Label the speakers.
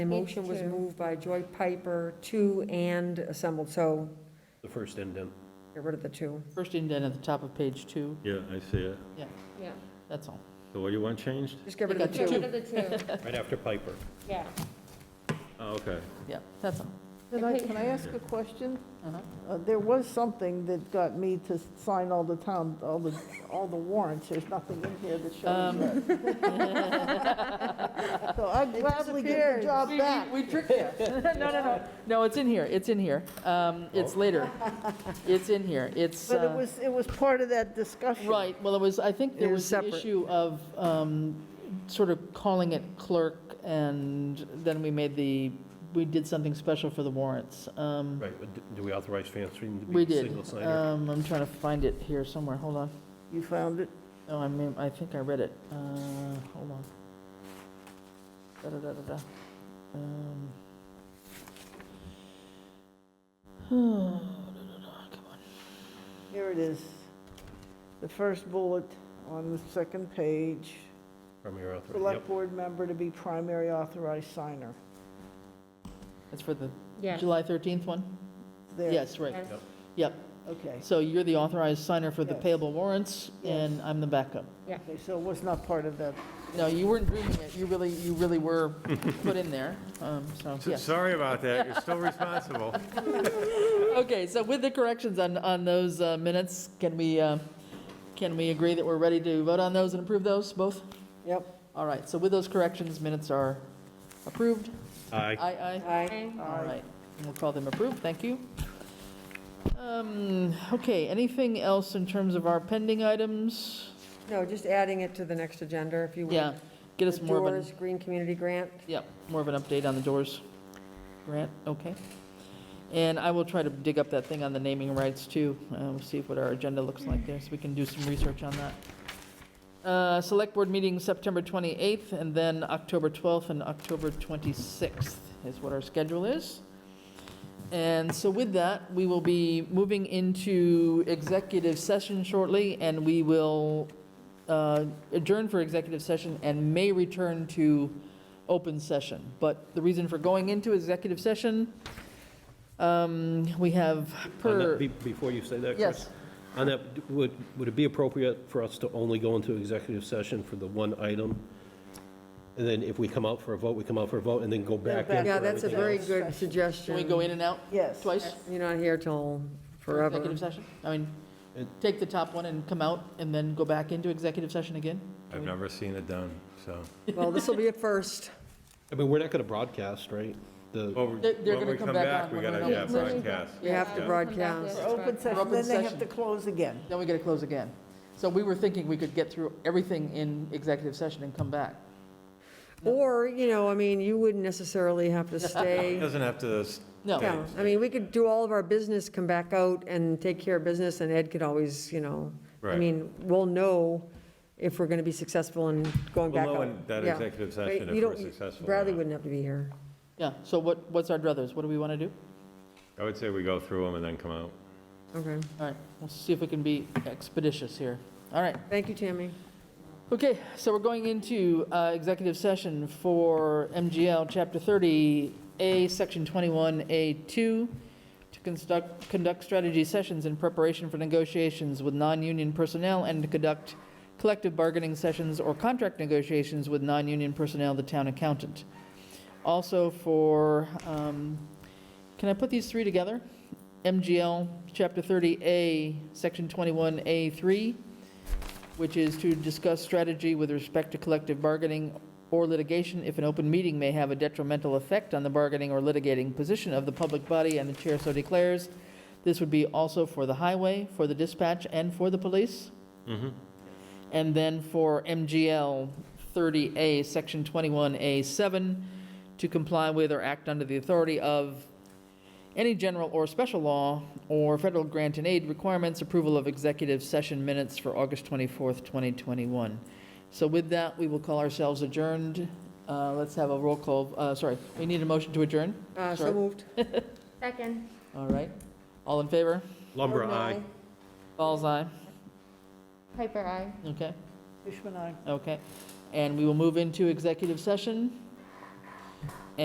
Speaker 1: The motion was
Speaker 2: Two.
Speaker 1: moved by Joy Piper, two and assembled, so
Speaker 3: The first indent.
Speaker 1: get rid of the two.
Speaker 4: First indent at the top of page two,
Speaker 5: Yeah, I see it.
Speaker 4: yeah,
Speaker 2: Yeah,
Speaker 4: that's all.
Speaker 5: So what do you want changed?
Speaker 1: Just get rid of the
Speaker 4: Take
Speaker 1: two.
Speaker 4: out
Speaker 2: get rid of the two,
Speaker 3: right after Piper.
Speaker 2: yeah.
Speaker 5: Oh, okay.
Speaker 4: Yeah, that's all.
Speaker 6: Can I, can I ask a question?
Speaker 4: Uh-huh.
Speaker 6: Uh, There was something that got me to sign all the town, all the, all the warrants. There's nothing in here that
Speaker 4: Um.
Speaker 6: shows that. So I'd gladly give the job back.
Speaker 4: We tricked you. No, no, no, no, it's in here, it's in here. Um, It's later. It's in here, it's.
Speaker 6: Oh. But it
Speaker 4: uh,
Speaker 6: was, it was part of that discussion.
Speaker 4: Right, well, it was, I think there
Speaker 1: It was
Speaker 4: was the
Speaker 1: separate.
Speaker 4: issue of um, sort of calling it clerk, and then we made the, we did something special for the warrants. Um,
Speaker 3: Right, but d- do we authorize Francine to
Speaker 4: We
Speaker 3: be a
Speaker 4: did.
Speaker 3: single signer?
Speaker 4: Um, I'm trying to find it here somewhere, hold on.
Speaker 6: You found it?
Speaker 4: No, I mean, I think I read it. Uh, Hold on. Da-da-da-da-da. Um. Come on.
Speaker 6: Here it is. The first bullet on the second page.
Speaker 3: From your author, yep.
Speaker 6: Select board member to be primary authorized signer.
Speaker 4: That's for the
Speaker 2: Yes.
Speaker 4: July 13th one?
Speaker 6: There.
Speaker 4: Yes, right.
Speaker 2: Yes.
Speaker 4: Yep.
Speaker 6: Okay.
Speaker 4: So you're the authorized signer for the
Speaker 6: Yes.
Speaker 4: payable warrants, and
Speaker 6: Yes.
Speaker 4: I'm the backup.
Speaker 6: Okay, so it was not part of that.
Speaker 4: No, you weren't dreaming it. You really, you really were put in there, Um, so,
Speaker 5: S-
Speaker 4: yes.
Speaker 5: Sorry about that. You're still responsible.
Speaker 4: Okay, so with the corrections on, on those uh, minutes, can we, uh, can we agree that we're ready to vote on those and approve those, both?
Speaker 6: Yep.
Speaker 4: All right, so with those corrections, minutes are approved?
Speaker 3: Aye.
Speaker 4: Aye, aye.
Speaker 1: Aye.
Speaker 4: All right, we'll call them approved, thank you. Um, Okay, anything else in terms of our pending items?
Speaker 1: No, just adding it to the next agenda, if you would.
Speaker 4: Yeah, get us more of an,
Speaker 1: Doors, Green Community Grant.
Speaker 4: yeah, more of an update on the doors grant, okay? And I will try to dig up that thing on the naming rights too, uh, We'll see what our agenda looks like there, so we can do some research on that. Uh, Select Board meeting September 28th, and then October 12th and October 26th is what our schedule is. And so with that, we will be moving into executive session shortly, and we will uh, adjourn for executive session and may return to open session. But the reason for going into executive session, um, we have
Speaker 3: On that-
Speaker 4: per,
Speaker 3: be- Before you say that, Chris.
Speaker 4: yes,
Speaker 3: On that, d- would, would it be appropriate for us to only go into executive session for the one item? And then if we come out for a vote, we come out for a vote and then go back in
Speaker 6: back.
Speaker 3: for
Speaker 1: Yeah, that's a
Speaker 3: everything
Speaker 1: very
Speaker 3: else?
Speaker 1: good
Speaker 4: can
Speaker 1: suggestion.
Speaker 4: we go in and out
Speaker 6: Yes.
Speaker 4: twice?
Speaker 1: You're not here till
Speaker 4: for
Speaker 1: forever.
Speaker 4: Executive session? I mean,
Speaker 3: It-
Speaker 4: take the top one and come out and then go back into executive session again?
Speaker 5: I've never seen it done, so.
Speaker 1: Well, this will be a first.
Speaker 3: I mean, we're not going to broadcast, right?
Speaker 5: Oh,
Speaker 3: The,
Speaker 4: They're- they're gonna come back on
Speaker 5: We
Speaker 4: when we
Speaker 5: gotta,
Speaker 4: know
Speaker 5: yeah,
Speaker 4: what's
Speaker 2: happening.
Speaker 5: broadcast.
Speaker 1: We have to
Speaker 2: Yeah, we'll come back
Speaker 1: broadcast.
Speaker 2: with
Speaker 6: For
Speaker 2: it.
Speaker 6: open session,
Speaker 4: open
Speaker 6: then they have
Speaker 4: session.
Speaker 6: to close again.
Speaker 4: Then we got to close again. So we were thinking we could get through everything in executive session and come back.
Speaker 1: Or, you know, I mean, you wouldn't necessarily have to
Speaker 5: It
Speaker 1: stay.
Speaker 5: Doesn't have to, s-
Speaker 4: No,
Speaker 1: Yeah, I mean, we could do all of our business, come back out and take care of business, and Ed could always, you know, I
Speaker 5: Right.
Speaker 1: mean, we'll know if we're going to be successful in going
Speaker 5: we'll
Speaker 1: back out.
Speaker 5: know in that
Speaker 1: Yeah.
Speaker 5: executive
Speaker 1: But
Speaker 5: session
Speaker 1: you
Speaker 5: if we're
Speaker 1: don't-
Speaker 5: successful. or
Speaker 1: Bradley
Speaker 5: not.
Speaker 1: wouldn't have to be here.
Speaker 4: yeah, so what, what's our druthers? What do we want to do?
Speaker 5: I would say we go through them and then come out.
Speaker 1: Okay.
Speaker 4: All right, we'll see if we can be expeditious here. All right.
Speaker 1: Thank you, Tammy.
Speaker 4: Okay, so we're going into uh, executive session for MGL Chapter 30A, Section 21A2, to conduct, conduct strategy sessions in preparation for negotiations with non-union personnel and to conduct collective bargaining sessions or contract negotiations with non-union personnel, the town accountant. Also for, um, can I put these three together? MGL Chapter 30A, Section 21A3, which is to discuss strategy with respect to collective bargaining or litigation if an open meeting may have a detrimental effect on the bargaining or litigating position of the public body and the chair so declares. This would be also for the highway, for the dispatch, and for the police. And then for MGL 30A, Section 21A7, to comply with or act under the authority of any general or special law or federal grant and aid requirements, approval of executive session minutes for August 24th, 2021. So with that, we will call ourselves adjourned. Uh, Let's have a roll call, uh, sorry, we need a motion to adjourn?
Speaker 1: Uh, So
Speaker 4: Sure.
Speaker 1: moved.
Speaker 2: Second.
Speaker 4: All right, all in favor?
Speaker 3: Lumbra,
Speaker 1: Gordon,
Speaker 3: aye.
Speaker 4: Balls aye,
Speaker 2: Piper, I.
Speaker 4: okay,
Speaker 6: Fishman, aye.
Speaker 4: okay. And we will move into executive session